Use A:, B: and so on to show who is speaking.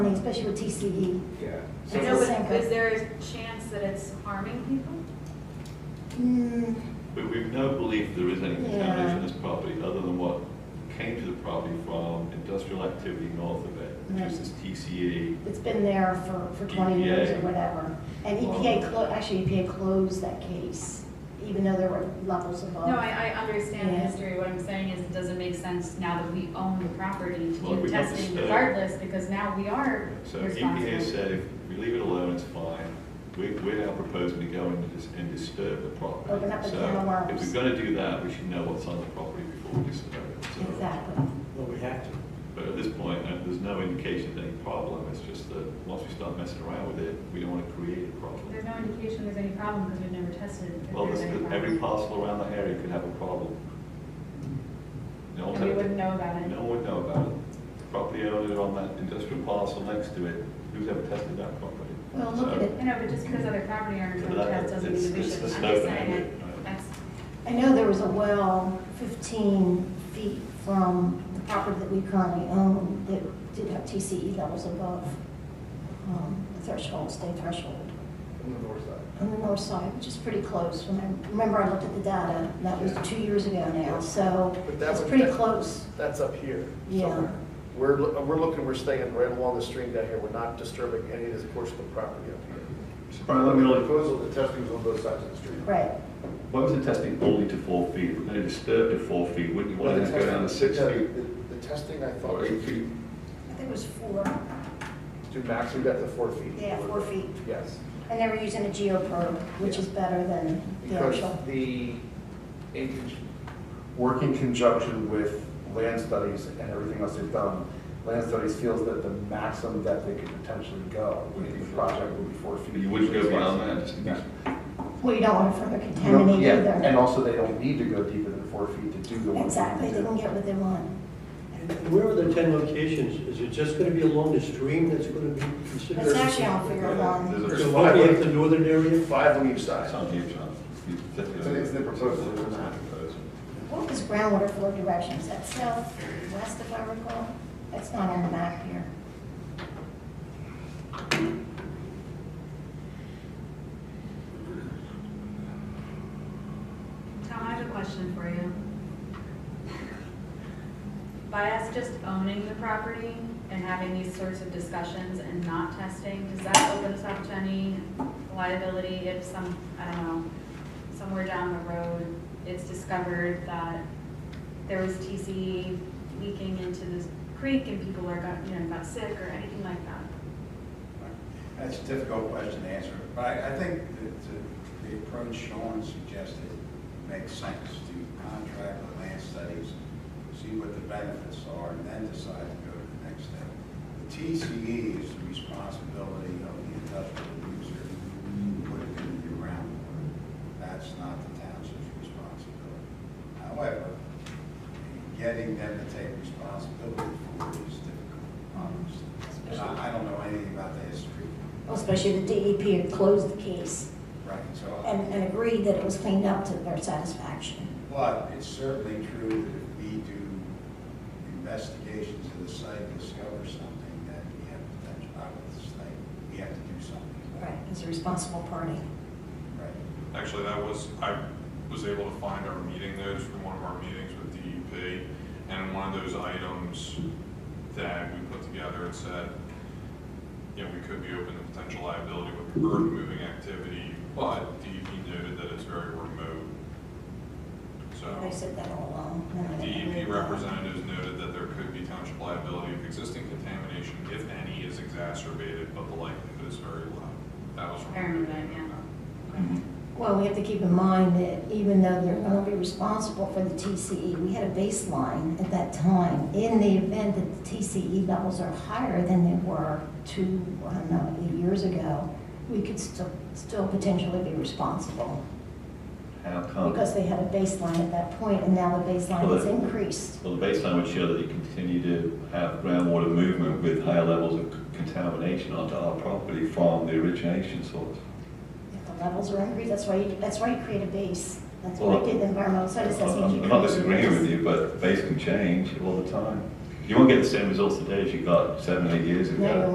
A: especially with E. TCE.
B: Yeah.
C: I
A: It's
C: know,
A: the
B: So
A: same
C: but is
A: thing.
C: there a chance that it's harming people?
A: Mm,
D: But we've no belief there is any
A: Yeah.
D: contamination in this property other than what came to the property from industrial activity north of it, which is this
A: Mm-hmm.
D: E. TCE.
A: It's been there for, for
E: E
A: 20 years or
D: EPA.
A: whatever. And EPA, clo- actually EPA closed that case, even though there were levels above.
C: No, I, I understand the
A: Yeah.
C: history, what I'm saying is it doesn't make sense now that we own the property to
D: Well,
C: do
D: we have to
C: testing
D: stay.
C: regardless, because now we are
D: So EPA
C: responsible.
D: said if we leave it alone, it's fine. We, we're now proposing to go in and dis- and disturb the property.
A: Open up the can of
D: So if
A: worms.
D: we're gonna do that, we should know what's on the property before we disturb it. So-
A: Exactly.
B: Well, we have to.
D: But at this point, uh, there's no indication of any problem. It's just that once we start messing around with it, we don't wanna create a problem.
C: There's no indication there's any problem, because we've never tested if
D: Well,
C: there's
D: this,
C: any
D: every
C: problem.
D: parcel around that area could have a problem. No one's
C: And we
D: had,
C: wouldn't know about it.
D: no one would know about it. Property owner on that industrial parcel next to it, who's ever tested that property?
A: Well, look at it.
C: I know, but just because other property owners
D: So
C: don't
D: that-
C: test doesn't mean
D: it's-
C: that we
D: it's
C: should.
D: the
C: I'm
D: snow
C: just saying
D: thing,
C: it,
D: right.
C: that's,
A: I know there was a well 15 feet from the property that we currently own that did have TCE levels above um, the threshold, state threshold.
B: On the north side.
A: on the north side, which is pretty close. When I- Remember, I looked at the data, that was two years ago now, so
E: But that
A: it's
E: would-
A: pretty
E: that-
A: close.
E: That's up here.
A: Yeah.
E: somewhere. We're, lo- we're looking, we're staying right along the stream down here. We're not disturbing any of this portion of the property up here.
B: Brian, let me know, the proposal, the testing was on both sides of the street.
A: Right,
D: Why was it testing only to four feet? We're gonna disturb to four feet, wouldn't you
B: Well,
D: want
B: the
D: it to go
B: testing-
D: down to six
B: the-
D: feet?
B: the- The testing, I thought,
D: Or eight
B: was
D: feet?
A: I think it was four,
B: to max, we got the four feet.
A: yeah, four feet.
B: Yes,
A: And they were using a geoprobe, which is better than the
B: because
A: actual.
B: the, in, con- work in conjunction with land studies and everything else they've done, land studies feels that the maximum depth they could potentially go in the project would be four feet.
D: You wouldn't go beyond that, just in
B: No.
D: case.
A: Well, you don't want to further
B: You don't-
A: contaminate
B: yeah, And
A: either.
B: also, they don't need to go deeper than four feet to do the work.
A: Exactly, they can get what they want.
F: And Where are the 10 locations? Is it just going to be along the stream that's going to be considered?
A: It's actually on figure one.
D: There's
F: So
D: a-
F: why at the northern area?
E: Five on each
D: It's
E: side.
D: on you, John. You-
B: it's the proposal, it's not-
A: What was groundwater flow direction? Is that south, west, if I recall? That's not on the map here.
C: Tom, I have a question for you. By us just owning the property and having these sorts of discussions and not testing, does that open us up to any liability if some, I don't know, somewhere down the road, it's discovered that there was TCE leaking into this creek and people are got, you know, got sick or anything like that?
G: That's a difficult question to answer, but I, I think that the- the approach Sean suggested makes sense to contract with land studies, see what the benefits are, and then decide to go to the next step. The TCE is the responsibility of the industrial user who put it in the groundwater. That's not the township's responsibility. However, getting them to take responsibility for it is difficult, obviously. And I, I don't know anything about the history.
A: Well, Especially the DEP had closed the case
G: Right, so,
A: and, and agreed that it was cleaned up to their satisfaction.
G: but it's certainly true that if we do investigations of the site, and discover something that we have potential out of the site, we have to do something.
A: Right, as a responsible party.
G: Right.
H: Actually, that was, I was able to find our meeting notes from one of our meetings with DEP, and one of those items that we put together, it said, you know, we could be open to potential liability with earth-moving activity, but DEP noted that it's very remote.
A: They
H: So E
A: said that all along. none of that.
H: DEP representatives noted that there could be township liability if existing contamination, if any, is exacerbated, but the likelihood is very low. That was from. our
C: Apparently,
H: meeting.
C: yeah. Mm-hmm.
A: Well, we have to keep in mind that even though they're going to be responsible for the TCE, we had a baseline at that time. In the event that the TCE levels are higher than they were two, I don't know, eight years ago, we could still, still potentially be responsible
D: How come?
A: because they had a baseline at that point and now the baseline
D: Oh. Well,
A: has
D: the-
A: increased.
D: Well, the baseline would show that you continue to have groundwater movement with higher levels of c- contamination onto our property from the origination source.
A: If the levels are increased, that's why, you that's why you create a base. That's what I did, the environmental studies assessment. you
D: I'm not
A: created a
D: disagreeing
A: base.
D: with you, but the base can change all the time. You won't get the same results today as you got seven, eight years
A: No,
D: ago.
A: you